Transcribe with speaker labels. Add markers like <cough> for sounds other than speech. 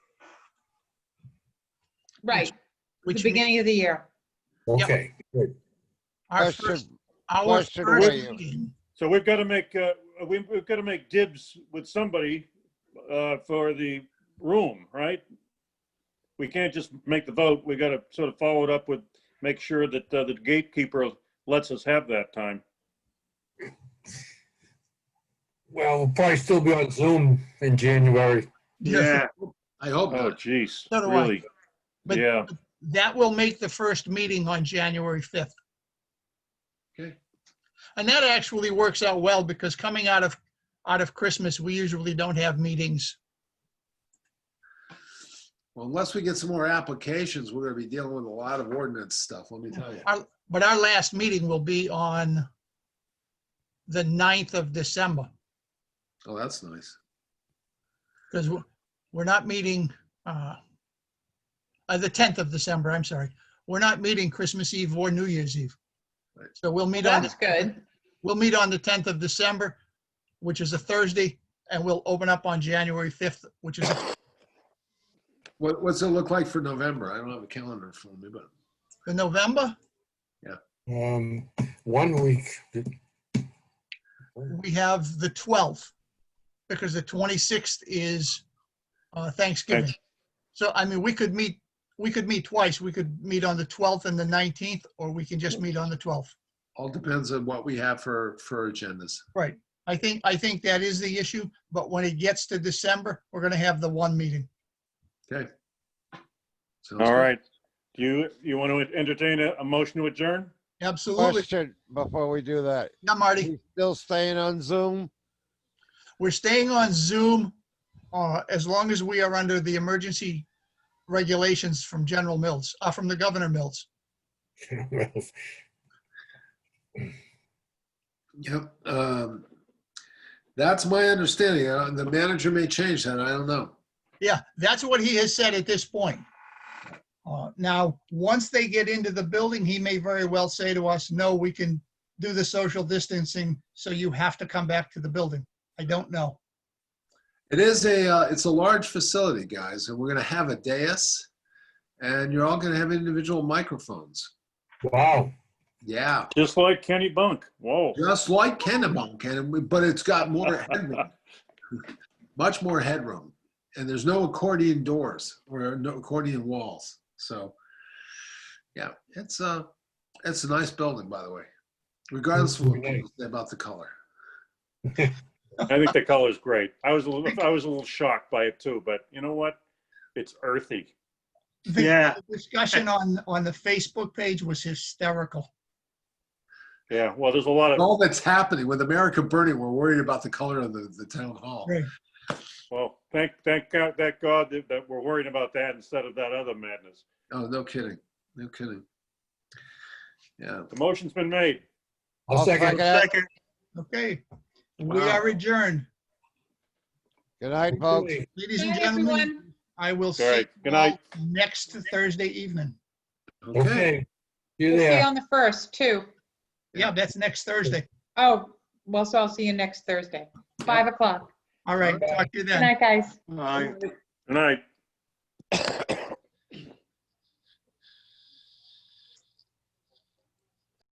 Speaker 1: Right, the
Speaker 2: Which means
Speaker 1: beginning of the year.
Speaker 3: Okay, good.
Speaker 2: our
Speaker 4: Question-
Speaker 2: first, our
Speaker 4: question
Speaker 2: first
Speaker 4: for you.
Speaker 2: meeting,
Speaker 5: So we've got to make, uh, we- we've got to make dibs with somebody uh, for the room, right? We can't just make the vote. We got to sort of follow it up with, make sure that uh, the gatekeeper lets us have that time.
Speaker 3: Well, we'll probably still be on Zoom in January.
Speaker 2: Yes,
Speaker 6: I hope
Speaker 5: Oh,
Speaker 6: not.
Speaker 5: jeez,
Speaker 2: So do I.
Speaker 5: really?
Speaker 2: But-
Speaker 5: Yeah,
Speaker 2: that will make the first meeting on January 5th.
Speaker 6: Okay.
Speaker 2: And that actually works out well because coming out of, out of Christmas, we usually don't have meetings.
Speaker 6: Well, unless we get some more applications, we're gonna be dealing with a lot of ordinance stuff, let me tell you.
Speaker 2: Our- But our last meeting will be on the 9th of December
Speaker 6: Oh, that's nice.
Speaker 2: because we're not meeting, uh, uh, the 10th of December, I'm sorry. We're not meeting Christmas Eve or New Year's Eve.
Speaker 6: Right.
Speaker 2: So we'll meet on the
Speaker 1: That's good.
Speaker 2: We'll meet on the 10th of December, which is a Thursday, and we'll open up on January 5th, which is,
Speaker 6: What, what's it look like for November? I don't have a calendar for me, but
Speaker 2: in November,
Speaker 3: Um, one week, <laughs>
Speaker 2: we have the 12th, because the 26th is uh, Thanksgiving. So, I mean, we could meet, we could meet twice. We could meet on the 12th and the 19th, or we can just meet on the 12th.
Speaker 6: all depends on what we have for, for agendas.
Speaker 2: Right. I think, I think that is the issue, but when it gets to December, we're going to have the one meeting.
Speaker 6: Sounds
Speaker 5: all
Speaker 6: good.
Speaker 5: right. Do you, you want to entertain a, a motion to adjourn?
Speaker 2: Absolutely.
Speaker 4: Question before we do that.
Speaker 2: Yeah, Marty.
Speaker 4: You Still staying on Zoom?
Speaker 2: We're staying on Zoom uh, as long as we are under the emergency regulations from General Mills, uh, from the Governor Mills.
Speaker 6: Yep. um, That's my understanding. Uh, The manager may change that. I don't know.
Speaker 2: Yeah, that's what he has said at this point. Uh, Now, once they get into the building, he may very well say to us, no, we can do the social distancing, so you have to come back to the building. I don't know.
Speaker 6: It is a, uh, it's a large facility, guys, and we're gonna have a dais. And you're all gonna have individual microphones.
Speaker 3: wow,
Speaker 6: Yeah,
Speaker 5: Just like Kenny Bunk. Whoa.
Speaker 6: just like Kennebunk, and, we- but it's got more headroom. Much more headroom. And there's no accordion doors or no accordion walls. So, yeah, it's a, it's a nice building, by the way. Regardless of what people say about the color.
Speaker 5: I think the color's great. I was, a little I was a little shocked by it too, but you know what? It's earthy.
Speaker 2: The- The discussion on, on the Facebook page was hysterical.
Speaker 5: Yeah, well, there's a lot of,
Speaker 6: all that's happening with America burning, we're worried about the color of the, the town hall.
Speaker 2: Right.
Speaker 5: Well, thank, thank God, thank God that, that we're worrying about that instead of that other madness.
Speaker 6: Oh, no kidding. No kidding. Yeah.
Speaker 5: The motion's been made.
Speaker 3: I'll second.
Speaker 4: it.
Speaker 2: Okay, we
Speaker 6: Wow.
Speaker 2: are adjourned.
Speaker 4: Good night, folks.
Speaker 2: Ladies and
Speaker 1: Bye,
Speaker 2: gentlemen.
Speaker 1: everyone.
Speaker 2: I will
Speaker 5: All
Speaker 2: see
Speaker 5: right,
Speaker 2: you
Speaker 5: good
Speaker 2: all
Speaker 5: night.
Speaker 2: next Thursday evening.
Speaker 6: Okay.
Speaker 3: Okay, you
Speaker 1: We'll see you
Speaker 3: there.
Speaker 1: on the first, too.
Speaker 2: Yeah, that's next Thursday.
Speaker 1: Oh, well, so I'll see you next Thursday, 5 o'clock.
Speaker 2: All right, talk to you
Speaker 1: Good
Speaker 2: then.
Speaker 1: night, guys.
Speaker 5: Good night.